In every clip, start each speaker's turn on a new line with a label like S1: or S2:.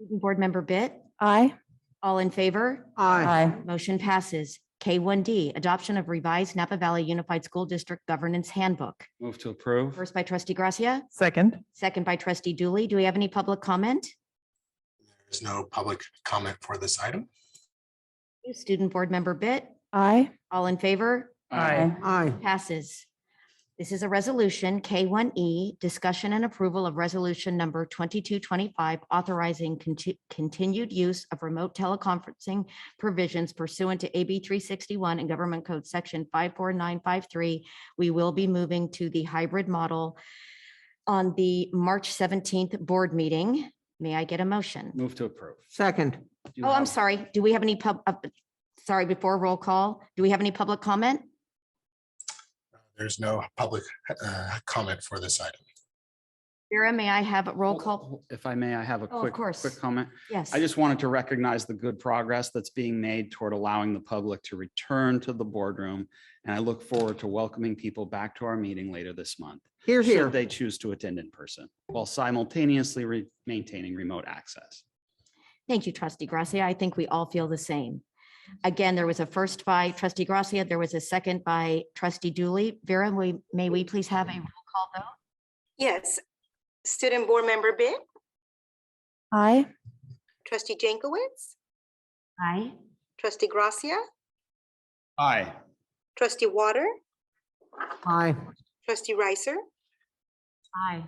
S1: Board Member Bit,
S2: Aye.
S1: all in favor?
S3: Aye.
S1: Motion passes. K1D, Adoption of Revised Napa Valley Unified School District Governance Handbook.
S3: Move to approve.
S1: First by trustee Gracia,
S2: Second.
S1: second by trustee Dooley. Do we have any public comment?
S4: There's no public comment for this item.
S1: Student Board Member Bit,
S2: Aye.
S1: all in favor?
S2: Aye.
S3: Aye.
S1: Passes. This is a resolution, K1E, discussion and approval of resolution number 2225, authorizing conti- continued use of remote teleconferencing provisions pursuant to AB 361 and Government Code Section 54953. We will be moving to the hybrid model on the March 17th board meeting. May I get a motion?
S3: Move to approve.
S5: Second.
S3: Do you
S1: Oh, I'm
S3: have-
S1: sorry. Do we have any pub, uh, sorry, before roll call, do we have any public comment?
S4: There's no public uh, comment for this item.
S1: Vera, may I have a roll call?
S3: If I may, I have a
S1: Oh, of
S3: quick,
S1: course.
S3: quick comment.
S1: Yes.
S3: I just wanted to recognize the good progress that's being made toward allowing the public to return to the boardroom. And I look forward to welcoming people back to our meeting later this month.
S5: Here,
S3: Should
S5: here.
S3: they choose to attend in person while simultaneously re- maintaining remote access.
S1: Thank you, trustee Gracia. I think we all feel the same. Again, there was a first by trustee Gracia. There was a second by trustee Dooley. Vera, we, may we please have a roll call vote?
S6: Yes. Student Board Member Bit,
S2: Aye.
S6: Trustee Jankowicz,
S1: Aye.
S6: Trustee Gracia,
S3: Aye.
S6: Trustee Water,
S5: Aye.
S6: Trustee Ricer,
S1: Aye.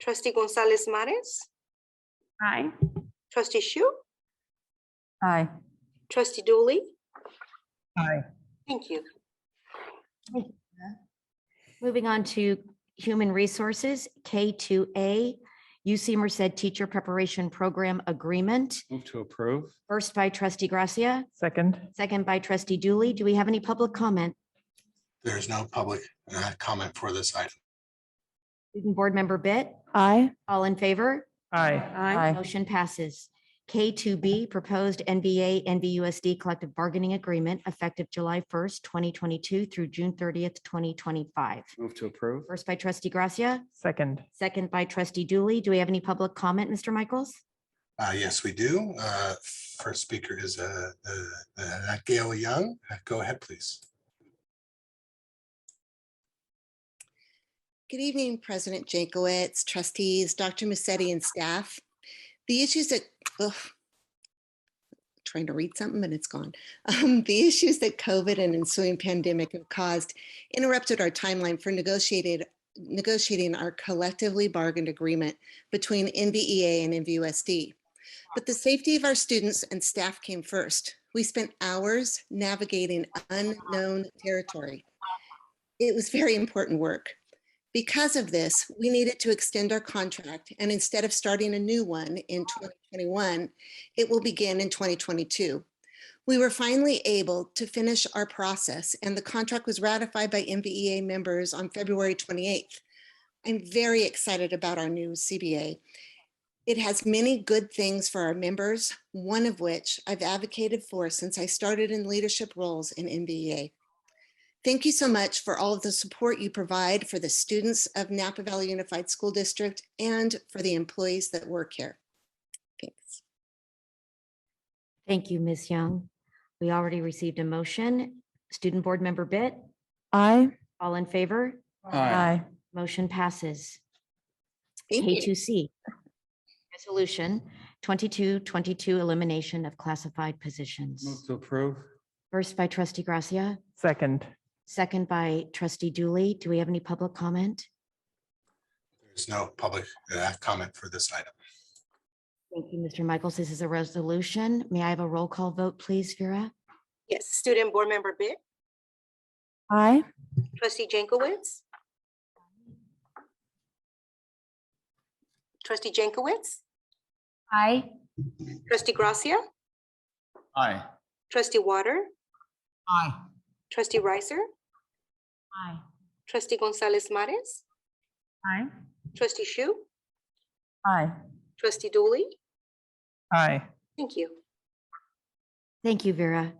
S6: Trustee Gonzalez Mares,
S2: Aye.
S6: Trustee Shu,
S2: Aye.
S6: Trustee Dooley.
S5: Aye.
S6: Thank you.
S1: Moving on to Human Resources, K2A, UC Merced Teacher Preparation Program Agreement,
S3: Move to approve.
S1: first by trustee Gracia,
S2: Second.
S1: second by trustee Dooley. Do we have any public comment?
S4: There's no public uh, comment for this item.
S1: Student Board Member Bit,
S2: Aye.
S1: all in favor?
S2: Aye. Aye.
S1: Motion passes. K2B, Proposed NBA NBUSD Collective Bargaining Agreement effective July 1st, 2022 through June 30th, 2025.
S3: Move to approve.
S1: First by trustee Gracia,
S2: Second.
S1: second by trustee Dooley. Do we have any public comment, Mr. Michaels?
S4: Uh, Yes, we do. Uh, First speaker is uh, uh, uh, Gail Young. Go ahead, please.
S7: Good evening, President Jankowicz, trustees, Dr. Musetti and staff. The issues that, ugh, trying to read something and it's gone. Um, the issues that COVID and ensuing pandemic have caused interrupted our timeline for negotiated, negotiating our collectively bargained agreement between NVEA and NVUSD. But the safety of our students and staff came first. We spent hours navigating unknown territory. It was very important work. Because of this, we needed to extend our contract, and instead of starting a new one in 2021, it will begin in 2022. We were finally able to finish our process, and the contract was ratified by MVEA members on February 28th. I'm very excited about our new CBA. It has many good things for our members, one of which I've advocated for since I started in leadership roles in E MVEA. Thank you so much for all of the support you provide for the students of Napa Valley Unified School District and for the employees that work here. Thanks.
S1: Thank you, Ms. Young. We already received a motion. Student Board Member Bit,
S2: Aye.
S1: all in favor?
S3: Aye.
S1: Motion passes.
S7: Thank you.
S1: K2C. Resolution 2222 Elimination of Classified Positions.
S3: Move to approve.
S1: First by trustee Gracia,
S2: Second.
S1: second by trustee Dooley. Do we have any public comment?
S4: There's no public uh, comment for this item.
S1: Thank you, Mr. Michaels. This is a resolution. May I have a roll call vote, please, Vera?
S6: Yes, Student Board Member Bit,
S2: Aye.
S6: Trustee Jankowicz. Trustee Jankowicz,
S1: Aye.
S6: Trustee Gracia,
S3: Aye.
S6: Trustee Water,
S5: Aye.
S6: Trustee Ricer,
S1: Aye.
S6: Trustee Gonzalez Mares,
S2: Aye.
S6: Trustee Shu,
S2: Aye.
S6: Trustee Dooley.
S2: Aye.
S6: Thank you.
S1: Thank you, Vera.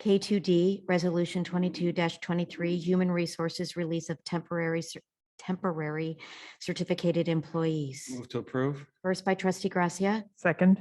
S1: K2D, Resolution 22-23, Human Resources Release of Temporary, Cer- Temporary Certificated Employees.
S3: Move to approve.
S1: First by trustee Gracia,
S2: Second.